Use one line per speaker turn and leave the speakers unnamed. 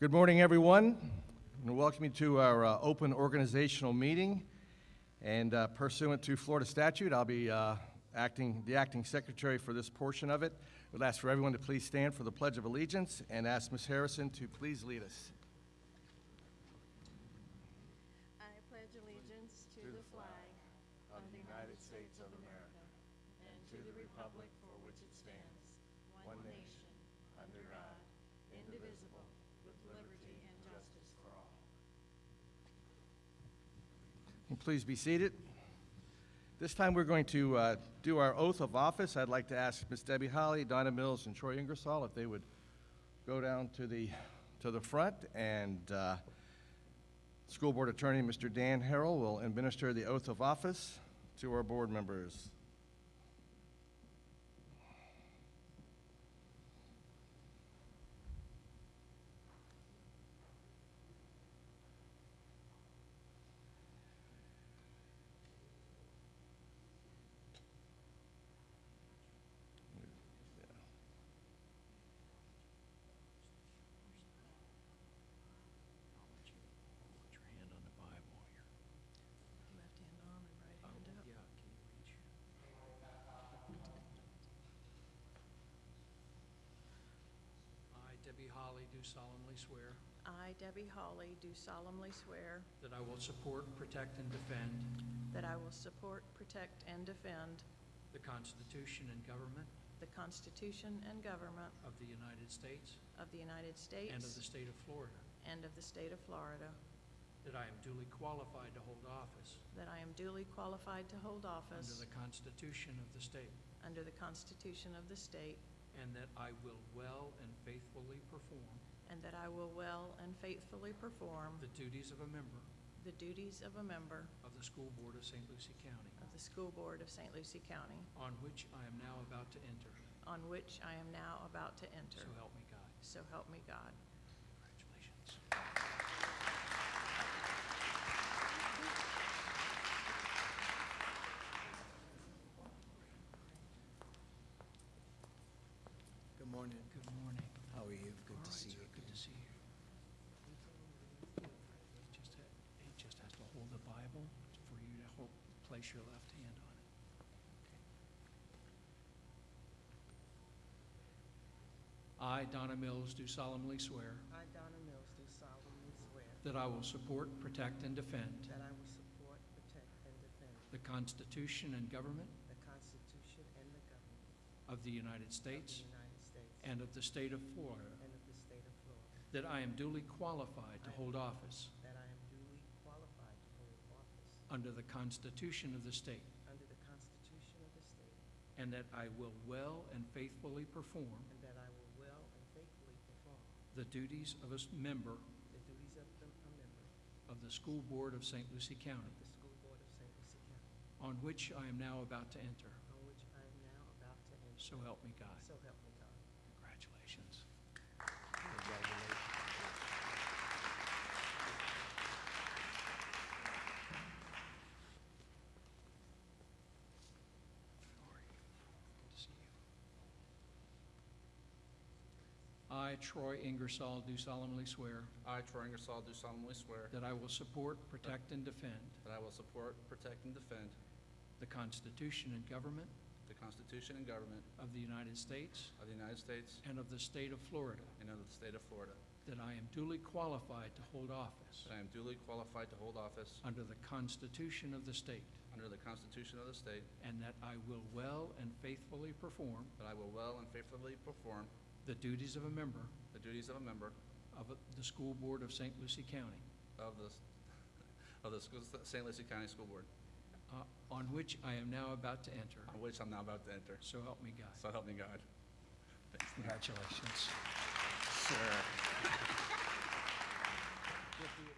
Good morning, everyone, and welcome you to our uh, open organizational meeting. And uh, pursuant to Florida statute, I'll be uh, acting, the acting secretary for this portion of it. Would ask for everyone to please stand for the Pledge of Allegiance and ask Ms. Harrison to please lead us.
I pledge allegiance to the flag of the United States of America and to the republic for which it stands, one nation, under God, indivisible, with liberty and justice for all.
And Please be seated. This time, we're going to uh, do our oath of office. I'd like to ask Ms. Debbie Holly, Donna Mills, and Troy Ingersoll if they would go down to the, to the front, and uh, School Board Attorney, Mr. Dan Harrell, will administer the oath of office to our board members.
Put your hand on the Bible here.
You have to hand on and right hand up.
Yeah, can you reach? I, Debbie Holly, do solemnly swear
I, Debbie Hawley, do solemnly swear
that I will support, protect, and defend
that I will support, protect, and defend
the Constitution and government
the Constitution and government
of the United States
of the United States
and of the state of Florida,
and of the state of Florida,
that I am duly qualified to hold office
that I am duly qualified to hold
under
office
the Constitution of the state,
under the Constitution of the state,
and that I will well and faithfully perform
And that I will well and faithfully perform
the duties of a member
the duties of a member
of the School Board of St. Lucie County,
of the School Board of St. Lucie County,
on which I am now about to enter.
on which I am now about to
So
enter.
help me God.
So help me God.
Congratulations.
Good morning.
Good morning.
How are you?
All
Good to
right,
see
sir,
you.
Good to see you. He just ha- He just has to hold the Bible for you to hold, place your left hand on it. Okay. I, Donna Mills, do solemnly swear
I, Donna Mills, do solemnly swear
that I will support, protect, and defend
that I will support, protect, and defend
the Constitution and government
the Constitution and the government
of the United
of
States
the United States
and of the state of Florida,
and of the state of Florida,
that I am duly qualified to
I am-
hold office
that I am duly qualified to hold office
Under the Constitution of the state.
under the Constitution of the state,
And that I will well and faithfully perform
and that I will well and faithfully perform
the duties of a s- member
the duties of the- a member
of the School Board of St. Lucie
of
County,
the School Board of St. Lucie County,
on which I am now about to enter.
on which I am now about to enter.
So help me God.
So help me God.
Congratulations. How are you? Good to see you. I, Troy Ingersoll, do solemnly swear
I, Troy Ingersoll, do solemnly swear
that I will support, protect, and defend
that I will support, protect, and defend
the Constitution and government
the Constitution and government
of the United States
of the United States
and of the state of Florida,
and of the state of Florida,
that I am duly qualified to hold office
that I am duly qualified to hold office
under the Constitution of the state,
under the Constitution of the state,
and that I will well and faithfully perform
that I will well and faithfully perform
the duties of a member
the duties of a member
of the School Board of St. Lucie County,
of the, of the school- St. Lucie County School Board,
uh, on which I am now about to enter.
on which I'm now about to enter.
So help me God.
So help me God. Thanks,
Congratulations.
sir.
Good deal.